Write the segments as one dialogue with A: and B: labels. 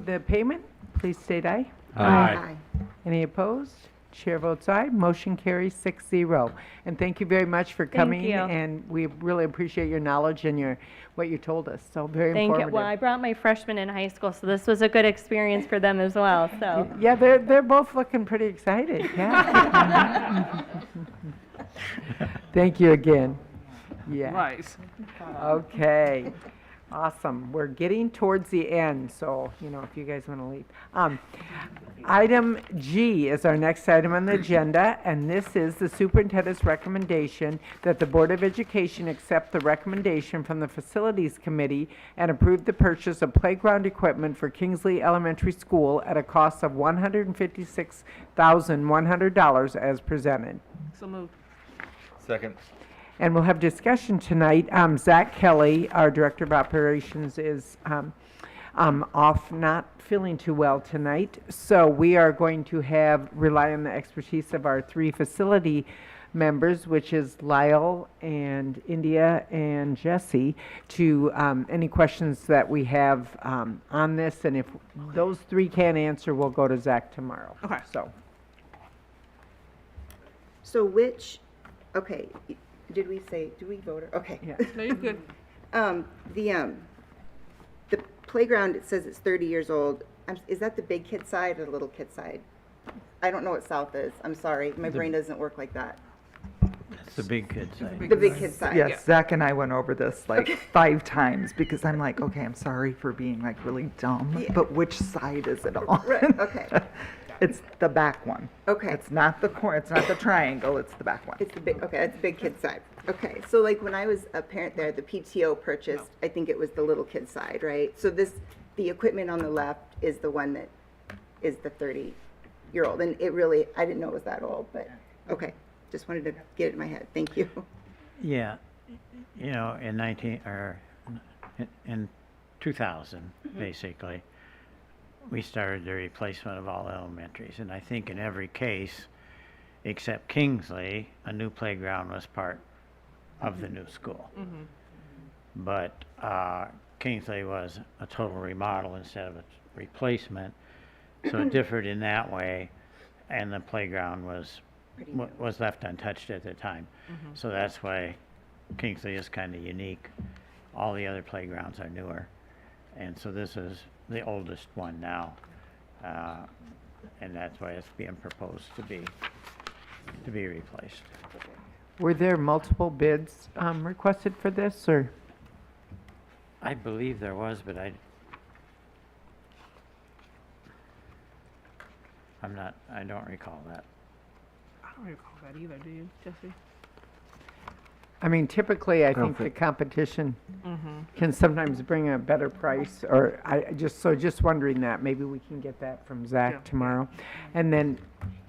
A: the payment, please state aye.
B: Aye.
A: Any opposed? Chair votes aye. Motion carries six zero. And thank you very much for coming.
C: you.
A: And we really appreciate your knowledge and your, what you told us. So very
C: Thank you.
A: informative.
C: Well, I brought my freshmen in high school, so this was a good experience for them as well, so.
A: Yeah, they're, they're both looking pretty excited, yeah. Thank you again. Yeah,
D: Nice.
A: okay. Awesome, we're getting towards the end, so, you know, if you guys want to leave. Um, Item G is our next item on the agenda, and this is the superintendent's recommendation that the Board of Education accept the recommendation from the Facilities Committee and approve the purchase of playground equipment for Kingsley Elementary School at a cost of $156,100 as presented.
D: So moved.
B: Second.
A: And we'll have discussion tonight. Um, Zach Kelly, our Director of Operations, is um, um, off, not feeling too well tonight. So we are going to have, rely on the expertise of our three facility members, which is Lyle and India and Jesse, to um, any questions that we have um, on this. And if those three can't answer, we'll go to Zach tomorrow.
D: Okay.
A: So,
E: So which, okay, y- did we say, do we vote, or- okay.
A: Yeah.
D: No, you're good.
E: Um, the, um, the playground, it says it's thirty years old, I'm- is that the big kid side or the little kid side? I don't know what south is, I'm sorry, my brain doesn't work like that.
B: The big kid side.
E: The big kid side?
F: Yes, Zach and I went over this like five times because I'm like, okay, I'm sorry for being like really dumb, but which side is it on?
E: Right, okay.
F: It's the back one.
E: Okay.
F: It's not the cor, it's not the triangle, it's the back one.
E: It's the big, okay, that's the big kid side. Okay, so like when I was a parent there, the PTO purchased, I think it was the little kid side, right? So this, the equipment on the left is the one that is the 30-year-old. And it really, I didn't know it was that old, but, okay, just wanted to get it in my head. Thank you.
G: Yeah, you know, in nineteen, or in- in two thousand, basically, we started the replacement of all elementaries, and I think in every case, except Kingsley, a new playground was part of the new school. But, uh, Kingsley was a total remodel instead of a replacement, so it differed in that way, and the playground was, wa- was left untouched at the time. So that's why Kingsley is kind of unique. All the other playgrounds are newer. And so this is the oldest one now. Uh, And that's why it's being proposed to be, to be replaced.
A: were there multiple bids um, requested for this, or?
G: I believe there was, but I, I'm not, I don't recall that.
D: I don't recall that either, do you, Jesse?
A: I mean, typically, I think the competition can sometimes bring a better price, or I I just, so just wondering that, maybe we can get that from
D: Yeah.
A: Zach tomorrow. And then,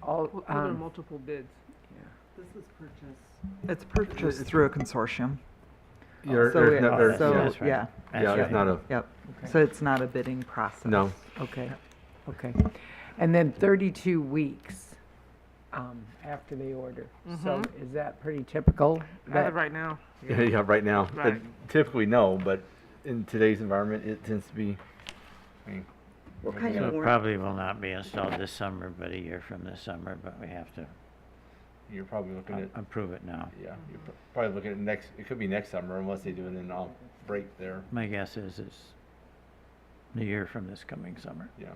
A: all,
D: Were were there
A: um,
D: multiple bids?
F: It's purchased through a consortium.
B: You're,
F: So
B: there's
F: it-
B: no- there's-
F: so,
G: Oh, That's right.
F: yeah,
G: That's
B: yeah,
G: right.
B: it's not a,
F: yep. So it's not a bidding process.
B: no.
A: okay, okay. And then 32 weeks um, after they order. So is that pretty typical?
D: As
A: that-
D: of right now.
B: Yeah, right now. But
D: Right.
B: Typically, no, but in today's environment, it tends to be, I mean,
E: What kind
G: So
E: of
G: it
E: warrant?
G: probably will not be installed this summer, but a year from this summer, but we have to
B: you're probably looking at,
G: a- approve it now.
B: yeah, you're pr- probably looking at next, it could be next summer unless they do it in a break there,
G: My guess is it's a year from this coming summer.
B: yeah.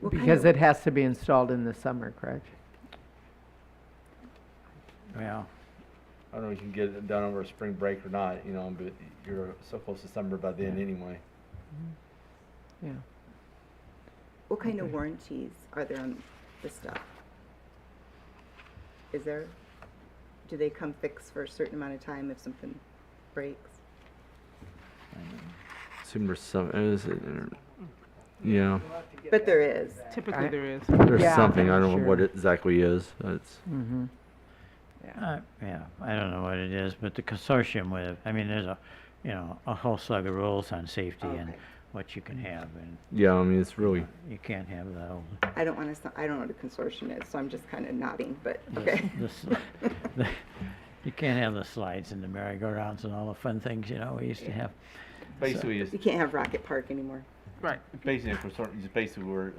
E: What kind
A: Because
E: of-
A: it has to be installed in the summer, correct?
G: Well,
B: I don't know if you can get it done over spring break or not, you know, but you're so close to summer by then anyway.
A: Yeah.
E: What kind of warranties are there on the stuff? Is there, do they come fixed for a certain amount of time if something breaks?
B: Assume there's some, is it, yeah,
E: But there is.
D: Typically,
A: I-
D: there is.
B: there's
A: Yeah, something, I don't know what sure.
B: exactly is, it's.
A: Mm-hmm.
G: uh, yeah, I don't know what it is, but the consortium with, I mean, there's a, you know, a whole slug of rules on safety and
E: Okay.
G: what you can have, and
B: Yeah, I mean, it's really,
G: you can't have the old
E: I don't want to, I don't know what a consortium is, so I'm just kind of nodding, but,
G: the-
E: okay.
G: the sli- the- You can't have the slides and the merry-go-rounds and all the fun things, you know, we used to have.
B: basically, it's,
E: You can't have Rocket Park anymore.
D: Right.
B: Basically, if we're sort of, just basically we're